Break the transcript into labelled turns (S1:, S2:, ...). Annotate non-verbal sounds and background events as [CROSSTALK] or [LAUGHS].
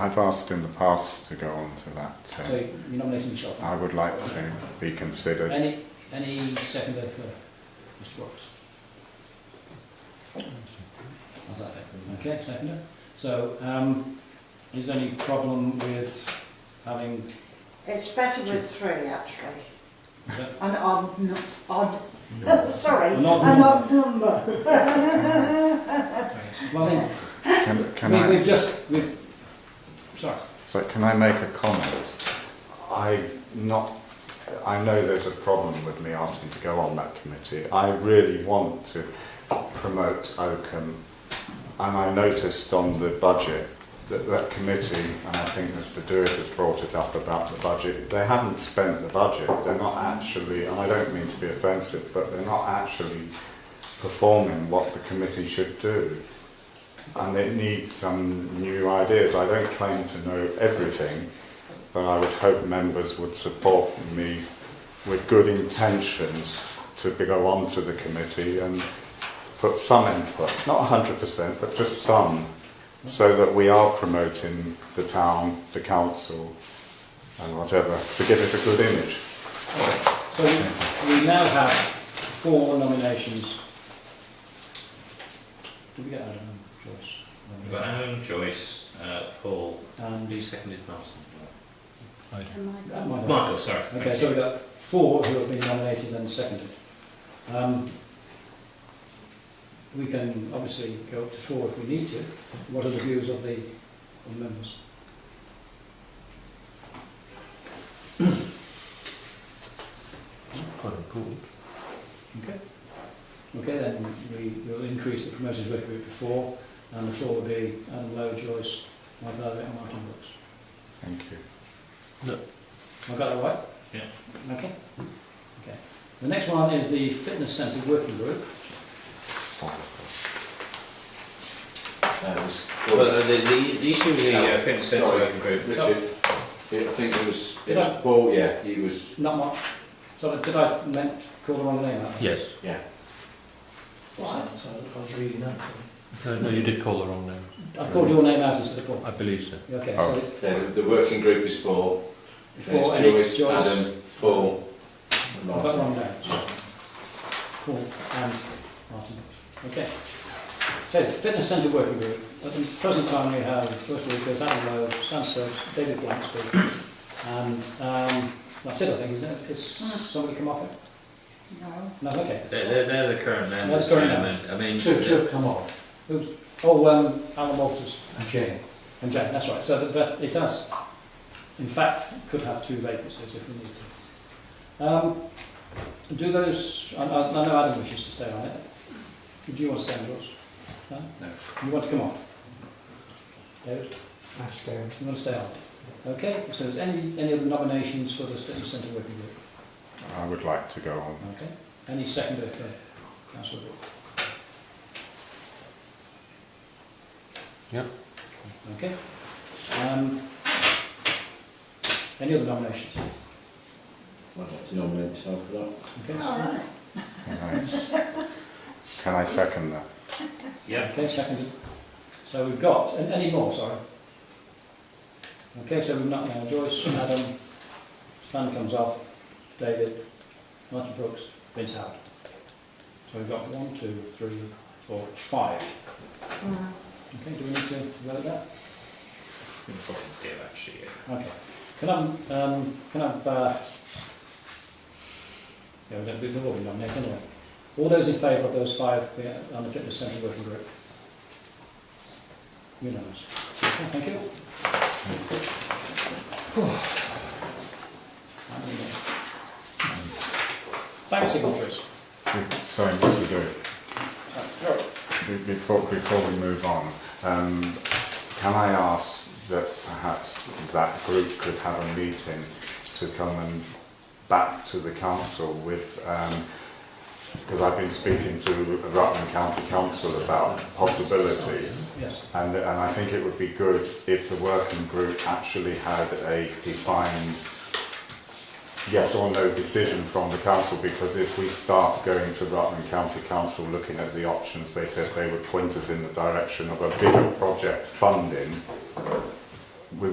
S1: I've asked in the past to go on to that.
S2: So
S1: Uh,
S2: you're nominating yourself?
S1: I would like to be considered.
S2: Any, any seconder for Mr Brooks? How's that? Okay, seconder. So, um, is there any problem with having,
S3: It's better with three, actually.
S2: is that-
S3: An odd, n- odd, [LAUGHS] sorry,
S2: An
S3: an
S2: odd
S3: odd number.
S2: well, then,
S1: Can, can
S2: we,
S1: I,
S2: we've just, we've, sorry,
S1: so can I make a comment? I not, I know there's a problem with me asking to go on that committee. I really want to promote Oakham. And I noticed on the budget that that committee, and I think Mr Dewis has brought it up about the budget, they haven't spent the budget. They're not actually, and I don't mean to be offensive, but they're not actually performing what the committee should do. And it needs some new ideas. I don't claim to know everything, but I would hope members would support me with good intentions to go on to the committee and put some input, not 100%, but just some, so that we are promoting the town, the council, and whatever, to give it a good image.
S2: so we, we now have four nominations. Did we get um, Adam Joyce?
S4: We've got Aaron, Joyce, uh, Paul,
S2: And, uh,
S4: who seconded Martin?
S2: Michael.
S4: Michael, sorry. thank
S2: Okay, so
S4: you.
S2: we've got four who have been nominated and seconded. Um, we can obviously go up to four if we need to. What are the views of the of the members?
S5: quite important.
S2: Okay. Okay, then we will increase the promoters work group to four, and the floor will be Anne Lowe, Joyce, Michael Abbott, and Martin Brooks.
S1: Thank you.
S2: Have I got that right? Yeah. Okay. Okay. The next one is the fitness centre working group.
S6: That was-
S4: Well, uh, the, the, the issue with the uh,
S6: Oh,
S4: fitness centre
S6: sorry.
S4: working group,
S6: Richard, it- I think it was, it
S2: Yeah.
S6: was Paul, yeah, he was,
S2: Not much. Sorry, did I meant call the wrong name out?
S5: Yes.
S6: yeah.
S2: What?
S7: I was reading that. so-
S5: Uh, No, no, you did call the wrong name.
S2: I called your name out instead of Paul.
S5: I believe so.
S2: Okay,
S1: Oh.
S2: so
S6: Then the working group is four,
S2: it's
S6: then
S2: four
S6: it's
S2: and it's
S6: Joyce,
S2: Joyce.
S6: Adam, Paul and
S2: I've got
S6: Martin.
S2: one down. Paul and Martin. Okay. So it's fitness centre working group. At the present time we have, first of all, there's Adam Lowe, Sam Stokes, David Blansby, and um, that's it I think, isn't it? Has somebody come off it?
S3: No.
S2: No, okay.
S4: they're, they're, they're the current members.
S2: That's current
S4: Chairman. I mean,
S7: Two,
S4: the-
S7: two have come off,
S2: Who's, oh, um, Alan Walters
S7: and Jane.
S2: and Jack, that's right. So that, that it has, in fact, could have two vacancies if we need to. Um, do those, I, I, I know Adam wishes to stay on it. Do you want to stay on yours? No?
S4: No.
S2: You want to come off? David?
S7: Ash down.
S2: You want to stay on? Okay, so is any, any other nominations for the fitness centre working group?
S1: I would like to go on.
S2: Okay, any seconder for councillor Brooke?
S5: Yep.
S2: Okay. Um, any other nominations?
S6: I'd like to nominate myself for that.
S2: Okay,
S3: All
S2: so-
S3: right.
S1: Can I, can I second that?
S4: Yeah.
S2: okay, seconded. So we've got, and any more, sorry? Okay, so we've not, now Joyce, Adam, Stan comes off, David, Martin Brooks, Vince Howard. So we've got one, two, three, four, five.
S3: Mm.
S2: Okay, do we need to vote that?
S4: We probably do actually. yeah.
S2: Okay. Can I, have, um, can I have, uh, yeah, we don't, we've all been nominated anyway. All those in favour of those five yeah, on the fitness centre working group? Unanimous. Okay, thank you. Thanks, signatories.
S1: Sorry, Mr Dewey. Be- Before, before we move on, um, can I ask that perhaps that group could have a meeting to come and back to the council with, because I've been speaking to Rutland County Council about possibilities.
S2: Yes.
S1: And, and I think it would be good if the working group actually had a defined yes or no decision from the council because if we start going to Rutland County Council looking at the options, they said they would point us in the direction of a bigger project funding